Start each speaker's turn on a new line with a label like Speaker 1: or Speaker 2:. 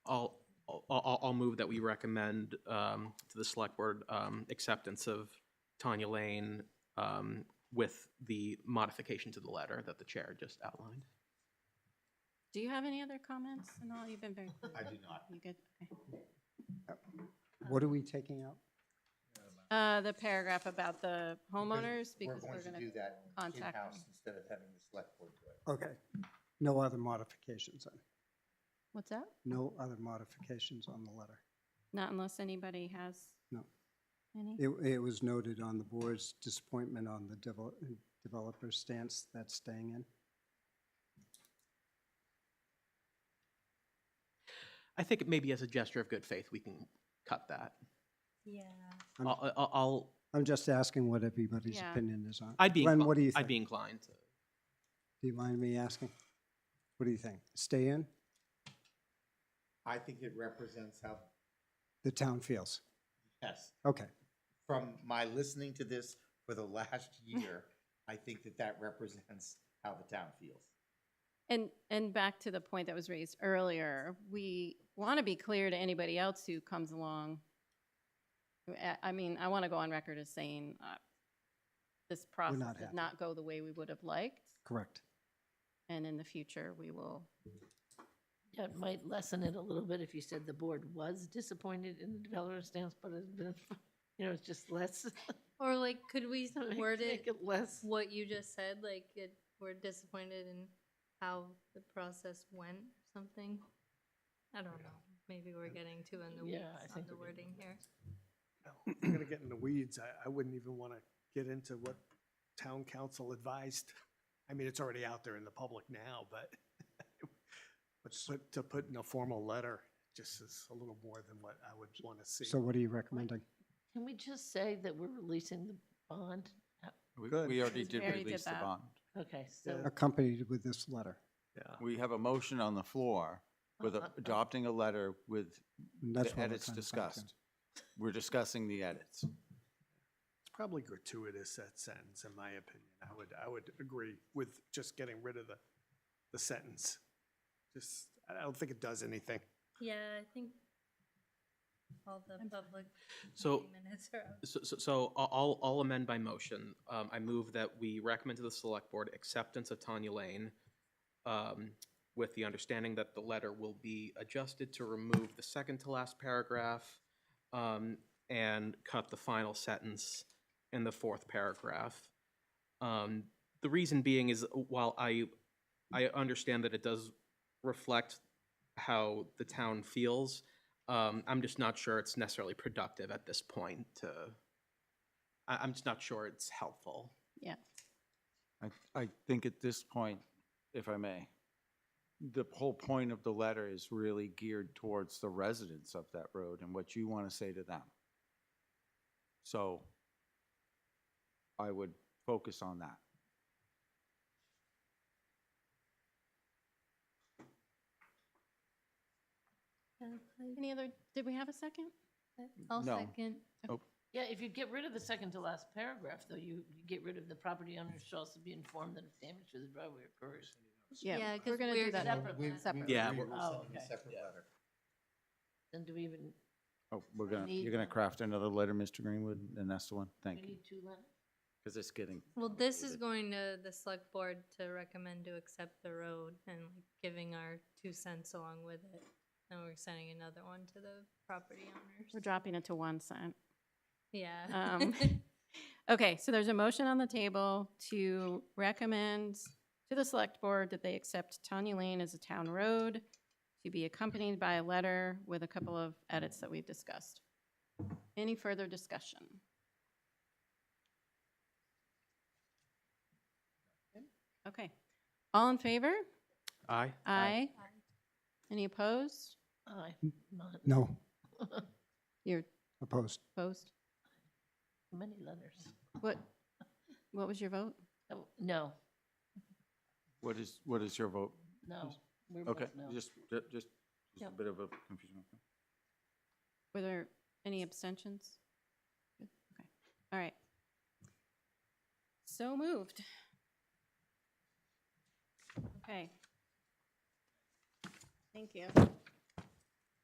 Speaker 1: I'll move that we recommend um, to the select board um, acceptance of Tanya Lane um, with the modification to the letter that the chair just outlined.
Speaker 2: Do you have any other comments? And all, you've been very.
Speaker 3: I do not.
Speaker 2: You good? Okay.
Speaker 4: What are we taking out?
Speaker 2: Uh, the paragraph about the homeowners,
Speaker 3: We're
Speaker 2: because
Speaker 3: going
Speaker 2: we're
Speaker 3: to
Speaker 2: gonna,
Speaker 3: do that
Speaker 2: contact them.
Speaker 3: in-house instead of having the select board do it.
Speaker 4: Okay, no other modifications then?
Speaker 2: what's that?
Speaker 4: No other modifications on the letter?
Speaker 2: Not unless anybody has.
Speaker 4: No.
Speaker 2: Any?
Speaker 4: It, it was noted on the board's disappointment on the devel- developer stance that's staying in.
Speaker 1: I think maybe as a gesture of good faith, we can cut that.
Speaker 5: Yeah.
Speaker 4: I'm-
Speaker 1: I'll, I'll- I'll,
Speaker 4: I'm just asking what everybody's
Speaker 2: Yeah.
Speaker 4: opinion is on.
Speaker 1: I'd be,
Speaker 4: Glenn,
Speaker 1: inclin-
Speaker 4: what do you
Speaker 1: I'd
Speaker 4: think?
Speaker 1: be
Speaker 4: Do
Speaker 1: inclined to.
Speaker 4: you mind me asking? What do you think? Stay in?
Speaker 3: I think it represents how,
Speaker 4: The town feels.
Speaker 3: yes,
Speaker 4: Okay,
Speaker 3: from my listening to this for the last year, I think that that represents how the town feels.
Speaker 2: And, and back to the point that was raised earlier, we want to be clear to anybody else who comes along. I- I mean, I want to go on record as saying uh, this process
Speaker 4: not
Speaker 2: did
Speaker 4: happy.
Speaker 2: not go the way we would have liked,
Speaker 4: correct.
Speaker 2: and in the future, we will.
Speaker 5: Yeah, it might lessen it a little bit if you said the board was disappointed in the developer's stance, but it's been, you know, it's just less.
Speaker 6: Or like, could we
Speaker 5: make-
Speaker 6: word
Speaker 5: make
Speaker 6: it
Speaker 5: Less.
Speaker 6: what you just said? Like, it, we're disappointed in how the process went, or something. I don't know. Maybe we're getting too in the weeds
Speaker 5: Yeah, I
Speaker 6: on
Speaker 5: think
Speaker 6: the
Speaker 5: we're getting
Speaker 6: wording here.
Speaker 7: If We're gonna get in the weeds. I, I wouldn't even want to get into what town council advised. I mean, it's already out there in the public now, but but to put, to put in a formal letter just is a little more than what I would want to see.
Speaker 4: So what are you recommending?
Speaker 5: Can we just say that we're releasing the bond?
Speaker 8: We
Speaker 7: Good.
Speaker 8: we already
Speaker 2: Since
Speaker 8: did
Speaker 2: Barry did
Speaker 8: release the
Speaker 2: that.
Speaker 8: bond.
Speaker 5: Okay, so.
Speaker 4: Accompanied with this letter.
Speaker 7: Yeah.
Speaker 8: We have a motion on the floor with a- adopting a letter with
Speaker 4: And that's
Speaker 8: the
Speaker 4: what we're
Speaker 8: edits
Speaker 4: trying to find out.
Speaker 8: discussed. We're discussing the edits.
Speaker 7: It's probably gratuitous, that sentence, in my opinion. I would, I would agree with just getting rid of the, the sentence. Just, I I don't think it does anything.
Speaker 6: Yeah, I think all the public
Speaker 1: So-
Speaker 6: minutes are out.
Speaker 1: So, so- so I- I'll, I'll amend by motion. Um, I move that we recommend to the select board acceptance of Tanya Lane um, with the understanding that the letter will be adjusted to remove the second to last paragraph um, and cut the final sentence in the fourth paragraph. Um, The reason being is while I, I understand that it does reflect how the town feels, um, I'm just not sure it's necessarily productive at this point to, I, I'm just not sure it's helpful.
Speaker 8: I- I think at this point, if I may, the whole point of the letter is really geared towards the residents of that road and what you want to say to them. So I would focus on that.
Speaker 2: Any other, did we have a second?
Speaker 6: I'll
Speaker 8: No.
Speaker 6: second.
Speaker 5: Yeah, if you get rid of the second to last paragraph, though, you you get rid of the property owner shall also be informed that if damage to the driveway occurs.
Speaker 6: Yeah,
Speaker 2: We're
Speaker 6: 'cause
Speaker 2: gonna do
Speaker 6: we're
Speaker 2: that.
Speaker 5: separate.
Speaker 3: We- we-
Speaker 2: Separate.
Speaker 1: Yeah,
Speaker 3: We
Speaker 1: we're-
Speaker 3: will
Speaker 5: Oh,
Speaker 3: send a
Speaker 5: okay.
Speaker 3: separate letter.
Speaker 5: Then do we even,
Speaker 8: Oh, we're
Speaker 5: I
Speaker 8: gonna,
Speaker 5: need
Speaker 8: you're gonna
Speaker 5: that.
Speaker 8: craft another letter, Mr. Greenwood, and that's the one?
Speaker 5: we
Speaker 8: Thank you.
Speaker 5: need two letters?
Speaker 8: Because it's getting.
Speaker 6: Well, this is
Speaker 8: convoluted.
Speaker 6: going to the select board to recommend to accept the road and like giving our two cents along with it. And we're sending another one to the property
Speaker 2: We're
Speaker 6: owners.
Speaker 2: dropping it to one cent.
Speaker 6: Yeah.
Speaker 2: Um, Okay, so there's a motion on the table to recommend to the select board that they accept Tawny Lane as a town road to be accompanied by a letter with a couple of edits that we've discussed. Any further discussion? Okay, all in favor?
Speaker 1: Aye.
Speaker 2: Aye. Any opposed?
Speaker 5: Aye, Oh,
Speaker 8: Mm.
Speaker 5: not
Speaker 4: No,
Speaker 2: You're
Speaker 4: opposed.
Speaker 2: opposed?
Speaker 5: many letters.
Speaker 2: What, what was your vote?
Speaker 5: Oh, No,
Speaker 8: What is, what is your vote?
Speaker 5: no. we're both
Speaker 8: Okay,
Speaker 5: no.
Speaker 8: just, ju- just just a
Speaker 5: Yep.
Speaker 8: bit of a confusion.
Speaker 2: Were there any abstentions? Good, Okay, all right. So moved. Okay. Thank you.